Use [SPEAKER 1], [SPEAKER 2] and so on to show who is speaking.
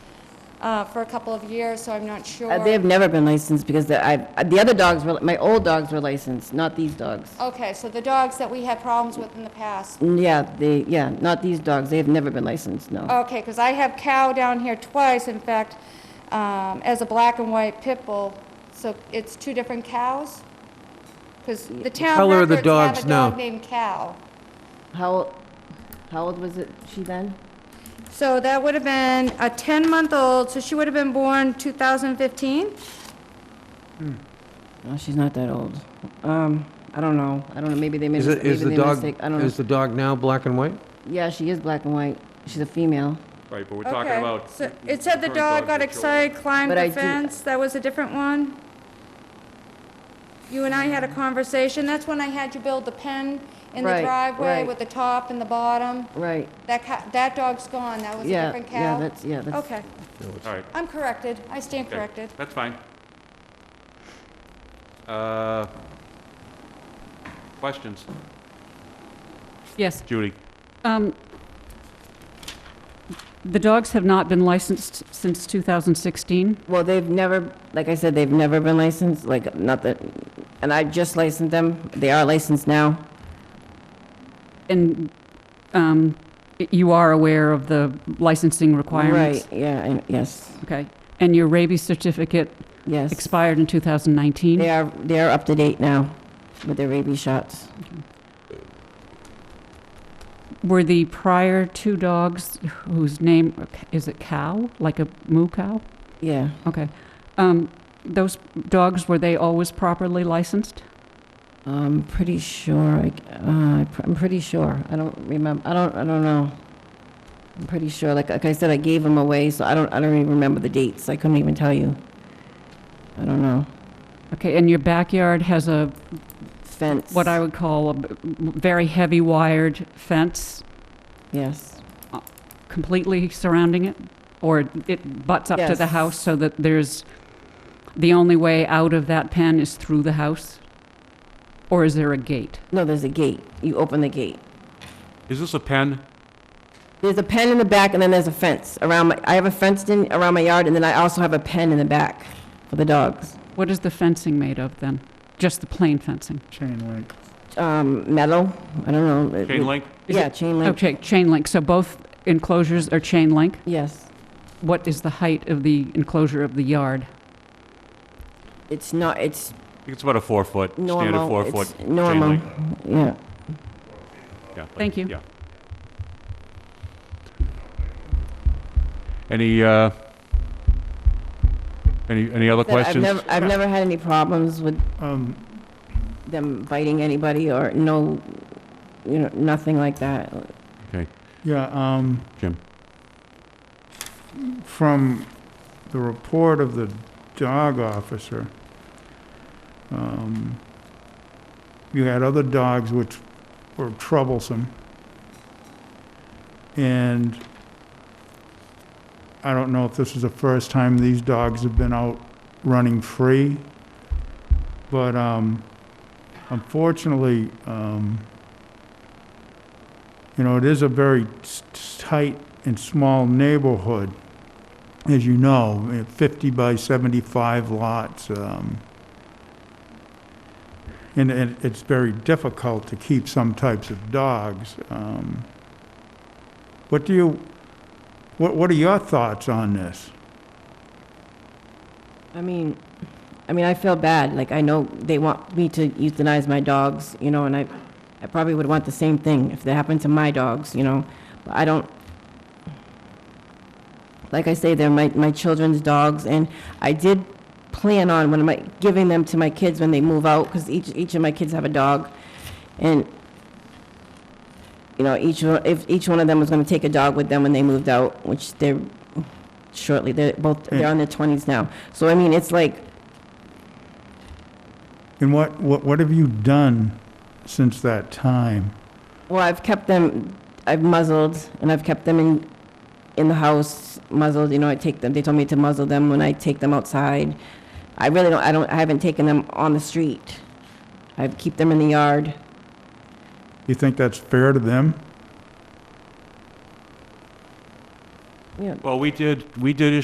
[SPEAKER 1] uh, for a couple of years, so I'm not sure.
[SPEAKER 2] Uh, They have never been licensed because the, I, the other dogs were, my old dogs were licensed, not these dogs.
[SPEAKER 1] Okay, so the dogs that we had problems with in the past.
[SPEAKER 2] Mm, Yeah, they, yeah, not these dogs. They have never been licensed, no.
[SPEAKER 1] Okay, because I have Cow down here twice, in fact, um, as a black and white pit bull, so it's two different cows? Because the town
[SPEAKER 3] color of the
[SPEAKER 1] records have
[SPEAKER 3] dogs,
[SPEAKER 1] a
[SPEAKER 3] no.
[SPEAKER 1] dog named Cow.
[SPEAKER 2] How, how old was it, she then?
[SPEAKER 1] So that would have been a 10-month-old, so she would have been born 2015?
[SPEAKER 2] No, Oh, she's not that old. Um, I don't know. I don't know, maybe they made,
[SPEAKER 3] Is
[SPEAKER 2] a
[SPEAKER 3] it,
[SPEAKER 2] maybe
[SPEAKER 3] is
[SPEAKER 2] they
[SPEAKER 3] the
[SPEAKER 2] made a
[SPEAKER 3] dog,
[SPEAKER 2] mistake. I don't know.
[SPEAKER 3] is the dog now black and white?
[SPEAKER 2] Yeah, she is black and white. She's a female.
[SPEAKER 4] Right, but we're talking
[SPEAKER 1] Okay.
[SPEAKER 4] about.
[SPEAKER 1] So It said the
[SPEAKER 4] current
[SPEAKER 1] dog
[SPEAKER 4] dogs
[SPEAKER 1] got
[SPEAKER 4] with children.
[SPEAKER 1] excited, climbed
[SPEAKER 2] But I
[SPEAKER 1] the
[SPEAKER 2] do-
[SPEAKER 1] fence, that was a different one? You and I had a conversation, that's when I had you build the pen in the
[SPEAKER 2] Right,
[SPEAKER 1] driveway
[SPEAKER 2] right.
[SPEAKER 1] with the top and the bottom.
[SPEAKER 2] Right,
[SPEAKER 1] That ca, that dog's gone, that was a
[SPEAKER 2] yeah,
[SPEAKER 1] different
[SPEAKER 2] yeah,
[SPEAKER 1] cow?
[SPEAKER 2] that's, yeah, that's.
[SPEAKER 1] Okay,
[SPEAKER 4] All right,
[SPEAKER 1] I'm corrected, I stand
[SPEAKER 4] okay,
[SPEAKER 1] corrected.
[SPEAKER 4] That's fine. Uh, Questions?
[SPEAKER 5] Yes.
[SPEAKER 4] Judy?
[SPEAKER 5] um, The dogs have not been licensed since 2016.
[SPEAKER 2] Well, they've never, like I said, they've never been licensed, like, not that, and I just licensed them. They are licensed now.
[SPEAKER 5] And um, y- you are aware of the licensing
[SPEAKER 2] Right,
[SPEAKER 5] requirements?
[SPEAKER 2] yeah, I- yes,
[SPEAKER 5] Okay. And your rabies certificate
[SPEAKER 2] yes.
[SPEAKER 5] expired in 2019?
[SPEAKER 2] They are, they are up to date now with their rabies shots.
[SPEAKER 5] Were the prior two dogs whose name, is it cow? Like a moo cow?
[SPEAKER 2] Yeah,
[SPEAKER 5] Okay. Um, Those dogs, were they always properly licensed?
[SPEAKER 2] I'm pretty sure, I c- uh, I pr- I'm pretty sure. I don't remember, I don't, I don't know. I'm pretty sure, like, like I said, I gave them away, so I don't, I don't even remember the dates. I couldn't even tell you. I don't know.
[SPEAKER 5] Okay, and your backyard has a
[SPEAKER 2] Fence.
[SPEAKER 5] what I would call a b- very heavy wired fence
[SPEAKER 2] Yes.
[SPEAKER 5] completely surrounding it? Or it butts up to the
[SPEAKER 2] Yes.
[SPEAKER 5] house so that there's, the only way out of that pen is through the house? Or is there a gate?
[SPEAKER 2] No, there's a gate. You open the gate.
[SPEAKER 4] Is this a pen?
[SPEAKER 2] There's a pen in the back, and then there's a fence around my, I have a fenced in around my yard, and then I also have a pen in the back for the dogs.
[SPEAKER 5] What is the fencing made of then? Just the plain fencing?
[SPEAKER 6] Chain link.
[SPEAKER 2] Um, metal, I don't know. it-
[SPEAKER 4] Chain link?
[SPEAKER 5] Is
[SPEAKER 2] Yeah,
[SPEAKER 5] it-
[SPEAKER 2] chain link,
[SPEAKER 5] Okay, chain link, so both enclosures are chain link?
[SPEAKER 2] yes.
[SPEAKER 5] What is the height of the enclosure of the yard?
[SPEAKER 2] It's not, it's
[SPEAKER 4] I think it's about a four-foot, standard
[SPEAKER 2] normal.
[SPEAKER 4] four-foot
[SPEAKER 2] It's
[SPEAKER 4] chain
[SPEAKER 2] normal,
[SPEAKER 4] link.
[SPEAKER 2] yeah.
[SPEAKER 4] Yeah, like-
[SPEAKER 5] Thank you.
[SPEAKER 4] Yeah. Any, uh, any, any other
[SPEAKER 2] But I've
[SPEAKER 4] questions?
[SPEAKER 2] never- I've never had any problems with
[SPEAKER 6] Um,
[SPEAKER 2] them biting anybody or no, you know, nothing like that.
[SPEAKER 6] yeah, um.
[SPEAKER 4] Jim.
[SPEAKER 6] From the report of the dog officer, um, you had other dogs which were troublesome. And I don't know if this is the first time these dogs have been out running free, but, um, unfortunately, um, you know, it is a very s- s- tight and small neighborhood, as you know, eh, 50 by 75 lots. um, And it- it's very difficult to keep some types of dogs. um. What do you, what what are your thoughts on this?
[SPEAKER 2] I mean, I mean, I feel bad. Like, I know they want me to euthanize my dogs, you know, and I, I probably would want the same thing if that happened to my dogs, you know. But I don't, like I say, they're my, my children's dogs, and I did plan on when I, giving them to my kids when they move out, because each, each of my kids have a dog. And, you know, each, one- if, each one of them was gonna take a dog with them when they moved out, which they're shortly, they're both, they're on their twenties now. So, I mean, it's like,
[SPEAKER 6] And what what what have you done since that time?
[SPEAKER 2] Well, I've kept them, I've muzzled, and I've kept them in, in the house muzzled, you know, I take them, they told me to muzzle them when I take them outside. I really don't, I don't, I haven't taken them on the street. I keep them in the yard.
[SPEAKER 6] You think that's fair to them?
[SPEAKER 2] Yeah,
[SPEAKER 4] Well, we did, we did